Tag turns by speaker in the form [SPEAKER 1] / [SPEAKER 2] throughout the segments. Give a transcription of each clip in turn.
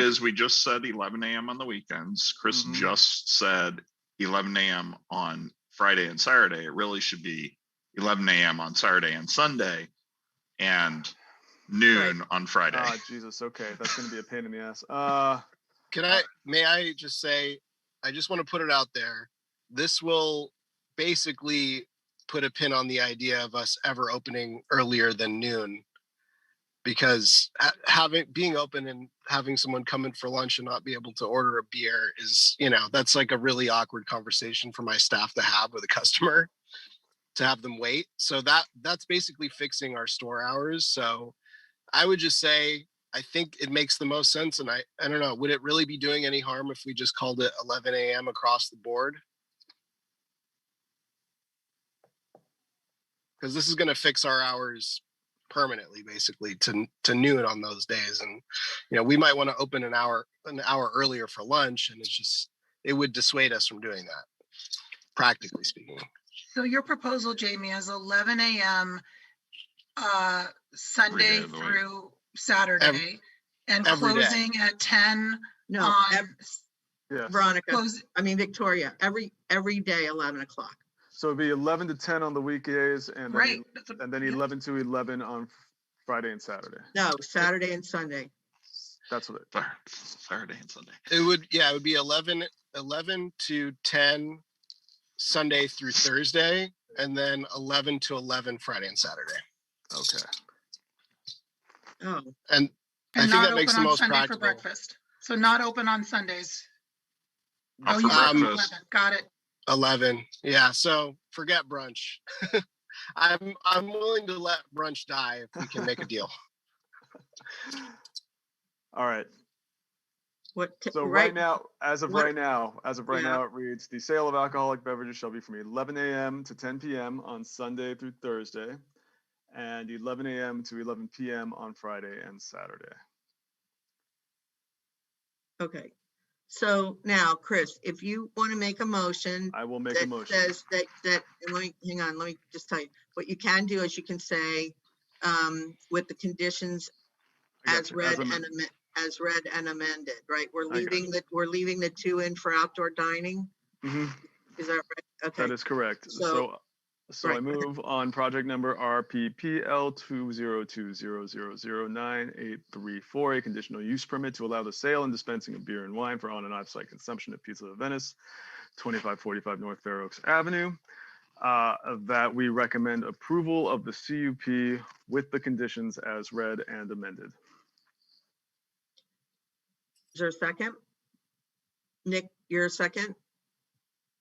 [SPEAKER 1] is we just said eleven AM on the weekends. Chris
[SPEAKER 2] Mhm.
[SPEAKER 1] just said eleven AM on Friday and Saturday. It really should be eleven AM on Saturday and Sunday and noon on Friday.
[SPEAKER 2] Ah, Jesus. Okay, that's gonna be a pain in the ass. Uh,
[SPEAKER 3] Can I, may I just say, I just want to put it out there. This will basically put a pin on the idea of us ever opening earlier than noon. Because ha- having, being open and having someone come in for lunch and not be able to order a beer is, you know, that's like a really awkward conversation for my staff to have with a customer. To have them wait. So that, that's basically fixing our store hours. So I would just say I think it makes the most sense. And I, I don't know, would it really be doing any harm if we just called it 11 a.m. across the board? Because this is going to fix our hours permanently, basically to to noon on those days. And you know, we might want to open an hour an hour earlier for lunch, and it's just it would dissuade us from doing that, practically speaking.
[SPEAKER 4] So your proposal, Jamie, is eleven AM, uh, Sunday
[SPEAKER 1] of the week.
[SPEAKER 4] through Saturday. And
[SPEAKER 3] every day.
[SPEAKER 4] closing at ten Um,
[SPEAKER 5] No, ev-
[SPEAKER 4] on,
[SPEAKER 2] yeah.
[SPEAKER 5] Veronica,
[SPEAKER 4] close,
[SPEAKER 5] I mean Victoria, every, every day, 11 o'clock.
[SPEAKER 2] So it'd be eleven to ten on the weekdays, and then
[SPEAKER 4] right. that's a-
[SPEAKER 2] and then
[SPEAKER 4] yeah.
[SPEAKER 2] eleven to eleven on Friday and Saturday.
[SPEAKER 5] No, Saturday and Sunday.
[SPEAKER 2] That's what it.
[SPEAKER 1] Thur- Saturday and Sunday.
[SPEAKER 3] It would, yeah, it would be 11, 11 to 10 Sunday through Thursday, and then 11 to 11 Friday and Saturday.
[SPEAKER 2] Okay.
[SPEAKER 5] Oh,
[SPEAKER 3] And I
[SPEAKER 4] And
[SPEAKER 3] think
[SPEAKER 4] not
[SPEAKER 3] that makes
[SPEAKER 4] open
[SPEAKER 3] the
[SPEAKER 4] on
[SPEAKER 3] most
[SPEAKER 4] Sunday for
[SPEAKER 3] practical.
[SPEAKER 4] breakfast. So not open on Sundays.
[SPEAKER 1] Oh,
[SPEAKER 4] Oh,
[SPEAKER 1] for
[SPEAKER 4] you said
[SPEAKER 3] Um,
[SPEAKER 1] breakfast.
[SPEAKER 4] 11. Got it.
[SPEAKER 3] 11, yeah, so forget brunch. I'm, I'm willing to let brunch die if we can make a deal.
[SPEAKER 2] All right.
[SPEAKER 5] what, t-
[SPEAKER 2] So right
[SPEAKER 5] right,
[SPEAKER 2] now, as of
[SPEAKER 5] what-
[SPEAKER 2] right now, as of right
[SPEAKER 5] Yeah.
[SPEAKER 2] now, it reads, the sale of alcoholic beverages shall be from eleven AM to ten PM on Sunday through Thursday. And eleven AM to eleven PM on Friday and Saturday.
[SPEAKER 5] okay. So now, Chris, if you want to make a motion
[SPEAKER 2] I will make a
[SPEAKER 5] that
[SPEAKER 2] motion.
[SPEAKER 5] says that, that, and let me, hang on, let me just tell you, what you can do is you can say, um, with the conditions
[SPEAKER 2] I
[SPEAKER 5] as
[SPEAKER 2] gotcha,
[SPEAKER 5] read and
[SPEAKER 2] amended.
[SPEAKER 5] amended, as read and amended, right? We're
[SPEAKER 2] I got
[SPEAKER 5] leaving the, we're leaving the two in for outdoor dining,
[SPEAKER 2] Mhm,
[SPEAKER 5] is that right? Okay.
[SPEAKER 2] That is correct. So,
[SPEAKER 5] So-
[SPEAKER 2] so I
[SPEAKER 5] right, go ahead.
[SPEAKER 2] move on project number RPPL two zero two zero zero zero nine eight three four, a conditional use permit to allow the sale and dispensing of beer and wine for on and off-site consumption at Pizza of Venice, twenty-five forty-five North Fair Oaks Avenue. Uh, that we recommend approval of the CUP with the conditions as read and amended.
[SPEAKER 5] Is there a second? Nick, you're a second?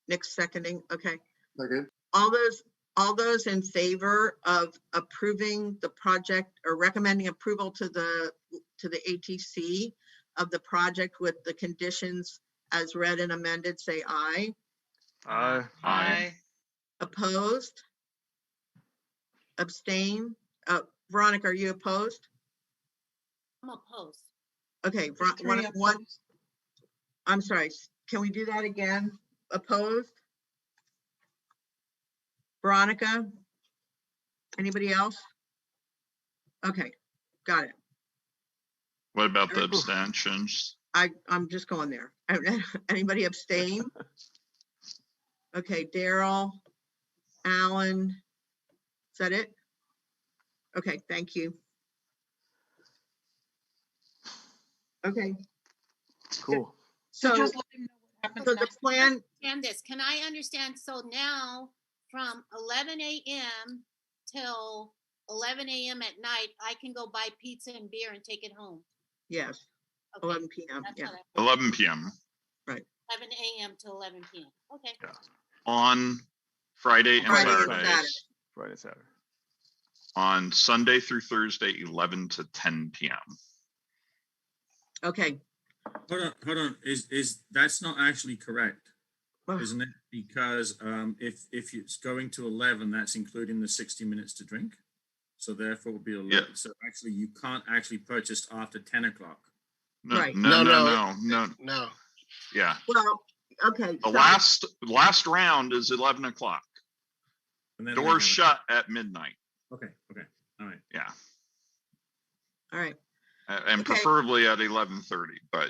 [SPEAKER 5] Nick's seconding, okay.
[SPEAKER 6] Second.
[SPEAKER 5] All those, all those in favor of approving the project or recommending approval to the, to the ATC of the project with the conditions as read and amended, say aye.
[SPEAKER 2] Aye.
[SPEAKER 1] Aye.
[SPEAKER 5] Opposed? Abstain? Uh, Veronica, are you opposed?
[SPEAKER 7] I'm opposed.
[SPEAKER 5] Okay, Ver- one,
[SPEAKER 4] Three of
[SPEAKER 5] one,
[SPEAKER 4] them.
[SPEAKER 5] I'm sorry, s- can we do that again? Opposed? Veronica? Anybody else? Okay, got it.
[SPEAKER 1] What about the
[SPEAKER 5] Oof.
[SPEAKER 1] abstentions?
[SPEAKER 5] I, I'm just going there. Anybody abstain? Okay, Daryl, Alan, is that it? Okay, thank you. Okay,
[SPEAKER 2] Cool.
[SPEAKER 4] So
[SPEAKER 5] so,
[SPEAKER 4] just
[SPEAKER 5] so
[SPEAKER 4] let him know what happens
[SPEAKER 5] the
[SPEAKER 4] next.
[SPEAKER 5] plan,
[SPEAKER 7] Understand this, can I understand, so now from eleven AM till eleven AM at night, I can go buy pizza and beer and take it home?
[SPEAKER 5] yes,
[SPEAKER 7] Okay,
[SPEAKER 5] 11 PM,
[SPEAKER 7] that's
[SPEAKER 5] Oh, yeah.
[SPEAKER 7] what I-
[SPEAKER 1] Eleven PM
[SPEAKER 7] Eleven AM to eleven PM, okay.
[SPEAKER 1] on Friday and
[SPEAKER 5] Friday and
[SPEAKER 1] Saturday.
[SPEAKER 5] Saturday.
[SPEAKER 2] Friday, and Saturday.
[SPEAKER 1] on Sunday through Thursday, 11 to 10 p.m.
[SPEAKER 5] Okay.
[SPEAKER 8] Hold on, hold on. Is, is, that's not actually correct,
[SPEAKER 5] Well,
[SPEAKER 8] isn't it? Because um, if, if it's going to 11, that's including the 60 minutes to drink. So therefore it would be 11. So actually, you can't actually purchase after 10 o'clock.
[SPEAKER 1] No,
[SPEAKER 5] Right.
[SPEAKER 1] no, no,
[SPEAKER 3] No,
[SPEAKER 1] no, no,
[SPEAKER 3] No,
[SPEAKER 1] Yeah.
[SPEAKER 5] Well, okay.
[SPEAKER 1] The
[SPEAKER 5] so-
[SPEAKER 1] last last round is 11 o'clock.
[SPEAKER 8] and then we have
[SPEAKER 1] Doors
[SPEAKER 8] it.
[SPEAKER 1] shut at midnight.
[SPEAKER 8] Okay, okay, all right.
[SPEAKER 1] Yeah,
[SPEAKER 5] All right,
[SPEAKER 1] a- and
[SPEAKER 5] Okay.
[SPEAKER 1] preferably at 11:30. But